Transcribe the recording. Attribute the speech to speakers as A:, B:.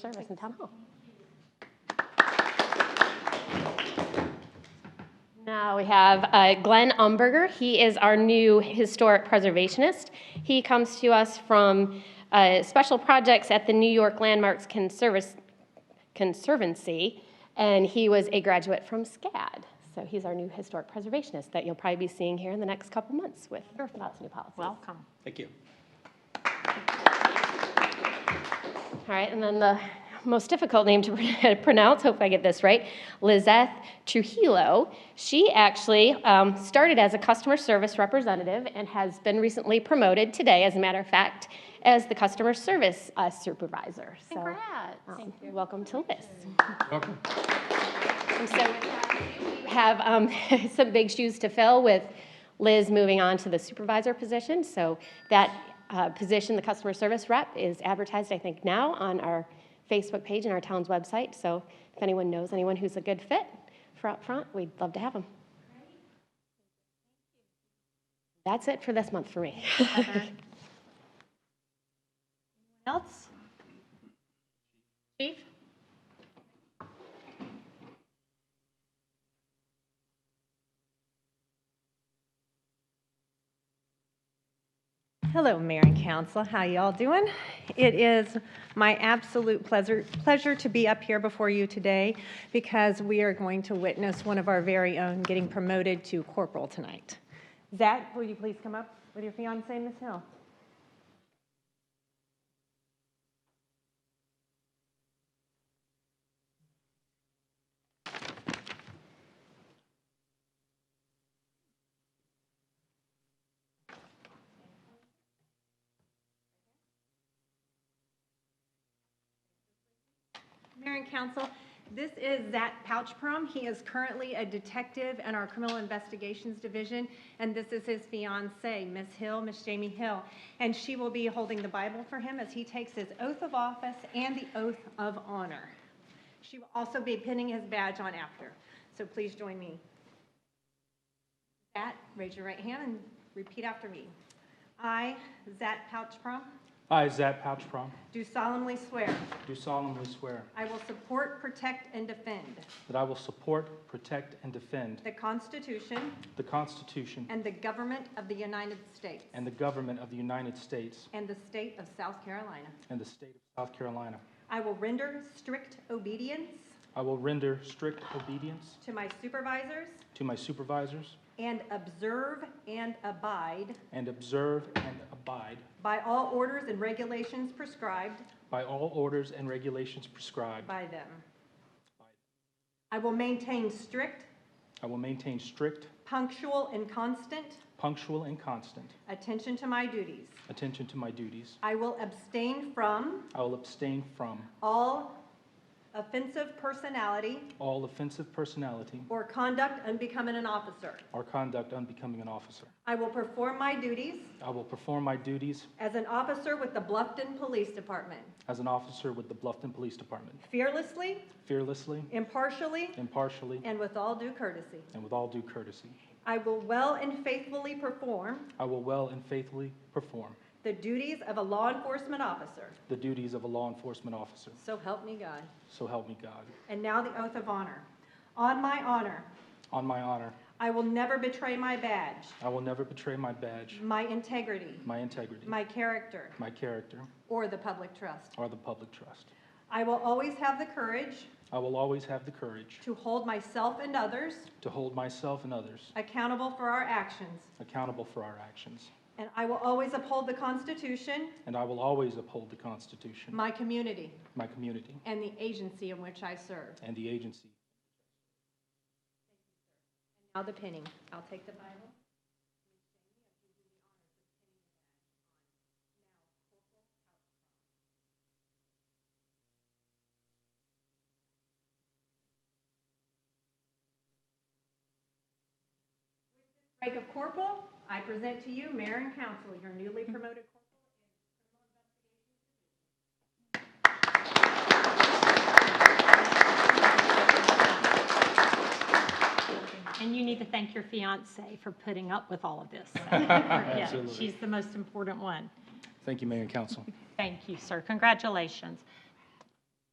A: service in town hall. Now we have uh, Glenn Umberger. He is our new historic preservationist. He comes to us from uh, special projects at the New York Landmarks Conservis- Conservancy, and he was a graduate from SCAD. So he's our new historic preservationist that you'll probably be seeing here in the next couple months with lots of new policies.
B: Welcome.
C: Thank you.
A: All right, and then the most difficult name to pr- pronounce, hope I get this right, Lizeth Trujillo. She actually um, started as a customer service representative and has been recently promoted today, as a matter of fact, as the customer service uh, supervisor. So, um, Welcome to Liz.
C: Welcome.
A: And so with that, we have um, some big shoes to fill with Liz moving on to the supervisor position. So that uh, position, the customer service rep, is advertised, I think, now on our Facebook page and our town's website. So if anyone knows anyone who's a good fit for up front, we'd love to have them. That's it for this month for me.
B: Else? Chief?
D: Hello, Mayor and Council. How y'all doing? It is my absolute pleasure, pleasure to be up here before you today because we are going to witness one of our very own getting promoted to corporal tonight. Zach, will you please come up with your fiancee, Ms. Hill? Mayor and Council, this is Zat Pouchprom. He is currently a detective in our Criminal Investigations Division, and this is his fiancee, Miss Hill, Miss Jamie Hill. And she will be holding the Bible for him as he takes his oath of office and the oath of honor. She will also be pinning his badge on after, so please join me. Zat, raise your right hand and repeat after me. I, Zat Pouchprom,
E: I, Zach Pouchprom,
D: do solemnly swear
E: do solemnly swear
D: I will support, protect, and defend
E: that I will support, protect, and defend
D: The Constitution
E: the Constitution
D: and the government of the United States.
E: and the government of the United States
D: and the state of South Carolina.
E: and the state of South Carolina.
D: I will render strict obedience
E: I will render strict obedience
D: to my supervisors
E: to my supervisors
D: and observe and abide
E: and observe and abide
D: by all orders and regulations prescribed
E: by all orders and regulations prescribed.
D: by them. I will maintain strict,
E: I will maintain strict,
D: punctual, and constant
E: punctual, and constant
D: attention to my duties.
E: attention to my duties.
D: I will abstain from
E: I will abstain from
D: all offensive personality
E: all offensive personality
D: or conduct unbecoming an officer.
E: or conduct unbecoming an officer.
D: I will perform my duties
E: I will perform my duties
D: as an officer with the Bluffton Police Department
E: as an officer with the Bluffton Police Department
D: fearlessly,
E: fearlessly,
D: impartially,
E: impartially,
D: and with all due courtesy.
E: and with all due courtesy.
D: I will well and faithfully perform
E: I will well and faithfully perform
D: the duties of a law enforcement officer.
E: the duties of a law enforcement officer.
D: So help me God.
E: So help me God.
D: And now the oath of honor. On my honor,
E: On my honor,
D: I will never betray my badge,
E: I will never betray my badge,
D: my integrity,
E: my integrity,
D: my character,
E: my character,
D: or the public trust.
E: or the public trust.
D: I will always have the courage
E: I will always have the courage
D: to hold myself and others
E: to hold myself and others
D: accountable for our actions.
E: accountable for our actions,
D: And I will always uphold the Constitution,
E: and I will always uphold the Constitution,
D: my community,
E: my community,
D: and the agency in which I serve.
E: and the agency.
D: Now the pinning. I'll take the Bible. Rank of corporal, I present to you mayor and council, your newly promoted corporal.
B: And you need to thank your fiance for putting up with all of this. Yeah,
E: Absolutely.
B: She's the most important one.
E: Thank you, Mayor and Council.
B: Thank you, sir. Congratulations.